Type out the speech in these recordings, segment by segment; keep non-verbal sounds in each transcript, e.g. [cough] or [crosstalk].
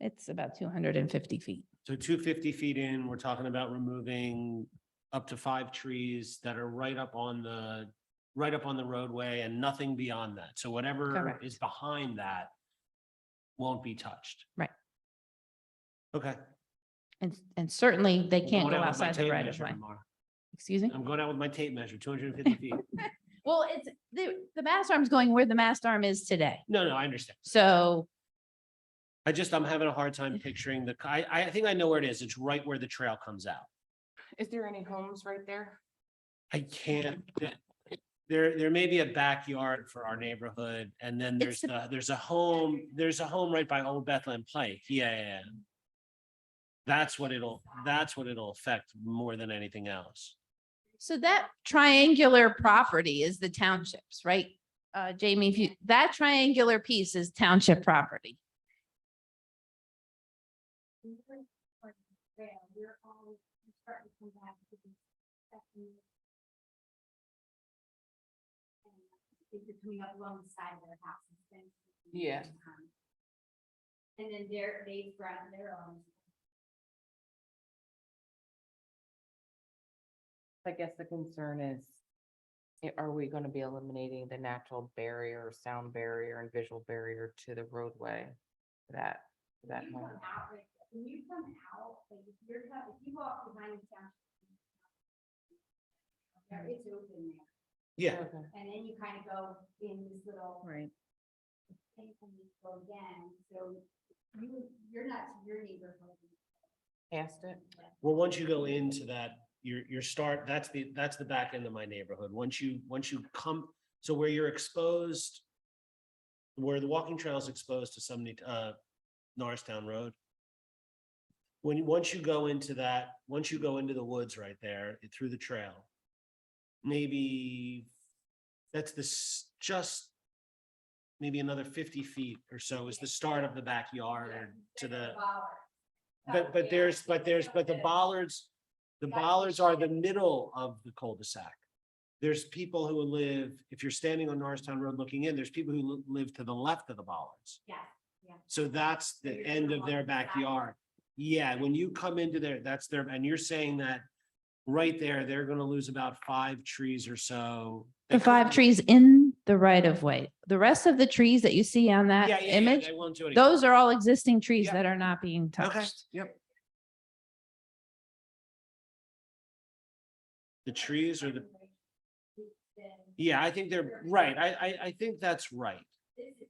It's about two hundred and fifty feet. So two fifty feet in, we're talking about removing up to five trees that are right up on the, right up on the roadway and nothing beyond that. So whatever Correct. is behind that won't be touched. Right. Okay. And, and certainly they I'm can't going go out with my outside the tape right of measure way. tomorrow. Excuse me? I'm going out with my tape measure, two hundred and fifty [laughs] feet. Well, it's, the, the mast arm's going where the mast arm is today. No, no, I understand. So, I just, I'm having a hard [laughs] time picturing the, I, I think I know where it is. It's right where the trail comes out. Is there any homes right there? I can't, th- there, there may be a backyard for our neighborhood, and then there's It's the- the, there's a home, there's a home right by Old Bethlehem Pike, yeah, yeah, yeah. That's what it'll, that's what it'll affect more than anything else. so that triangular property is the townships, right? Uh, Jamie, if you, that triangular piece is township property. If you're coming up along the side of their house. it's been- Yeah. Um, And then they're, they've brought their own. I guess the concern is, i- are we gonna be eliminating the natural barrier, sound barrier and visual barrier to the roadway? for That, for that When you home? come out, like, when you come out, like, if you're, co- if you walk behind the town. There, it's open there, Yeah, Okay. and then you kind of go in this little. Right. Thing and you go again, so you, you're not to your neighborhood. Past it? well, once you go into that, your, your start, that's the, that's the back end of my neighborhood, once you, once you come, so where you're exposed. Where the walking trail is exposed to somebody, uh, Norristown Road. when, you- once you go into that, once you go into the woods right there, it- through the trail. Maybe that's this, just maybe another fifty feet or so is the start of the backyard to the, but, but there's, but there's, but the bollards, the bollards are the middle of the cul-de-sac. There's people who live, if you're standing on Norristown Road looking in, there's people who li- live to the left of the bollards. Yeah, So that's So the you're gonna end of walk their the sidewalk. backyard. Yeah, when you come into there, that's their, and you're saying that right there, they're gonna lose about five trees or so. The They- five trees in the right of way. The rest of the trees that you see on Yeah, yeah, that yeah, image, They won't do anything. those are all existing trees Yeah. that are not being Okay, touched. yep. The trees or the, then yeah, I think they're, right, I, I, I think that's right. this is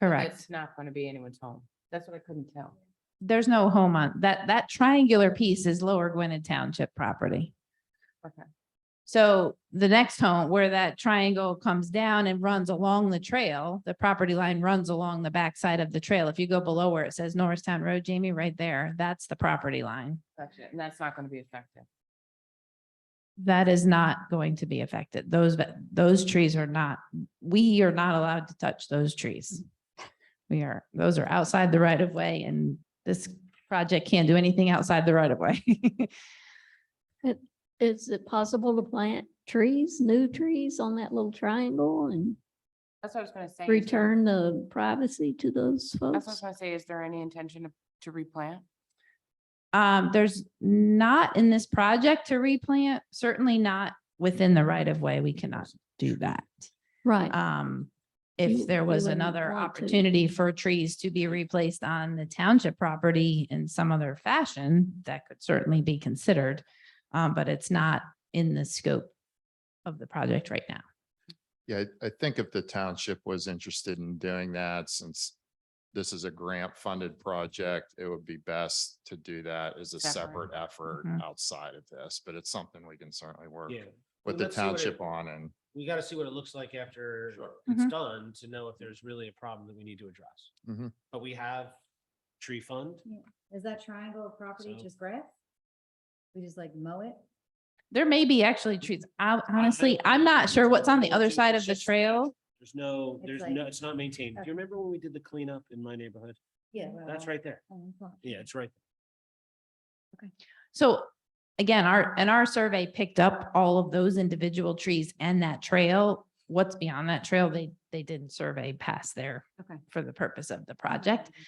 Correct. It's not gonna be anyone's home. That's what I couldn't tell. There's no home on, that, that triangular piece is Lower Gwinnett Township property. Okay. So the next home where that triangle comes down and runs along the trail, the property line runs along the backside of the trail. If you go below where it says Norristown Road, Jamie, right there, that's the property line. That's it. And that's not gonna be affected. That is not going to be affected. Those, but those trees are not, we are not allowed to touch those trees. We are, those are outside the right of way and this project can't do anything outside the right of way. [laughs] Is it possible to plant trees, new trees on that little triangle and That's what I was gonna say. is there- return the privacy to those That's what I was folks? gonna say. Is there any intention to, to replant? Um, there's not in this project to replant, certainly not within the right of way. We cannot do that. Right, Um, You- if there you was wouldn't another want to. opportunity for trees to be replaced on the township property in some other fashion, that could certainly be considered. Um, but it's not in the scope of the project right now. Yeah, I I think if the township was interested in doing that, since this is a grant funded project, it would be best to do that as a Separate. separate effort Mhm. outside of this, but it's something we can certainly work Yeah. Well, with the let's see what it- township on and. We gotta see what it looks like after it's Mm-hmm. Mhm. done to know if there's really a problem that we need to address. Mhm. But we have tree fund. Is that triangle of property So- just grass? We just like mow it? There may be actually trees. I honestly, I'm not sure what's on the other side of the trail. There's no, It's there's like- no, it's not maintained. Do Okay. Uh-huh. you remember when we did the cleanup in my neighborhood? Yeah. oh, That's right there. Yeah, it's right. So again, our, and our survey picked up all of those individual trees and that trail. What's beyond that trail, they, they didn't survey past there Okay. for the purpose of the project.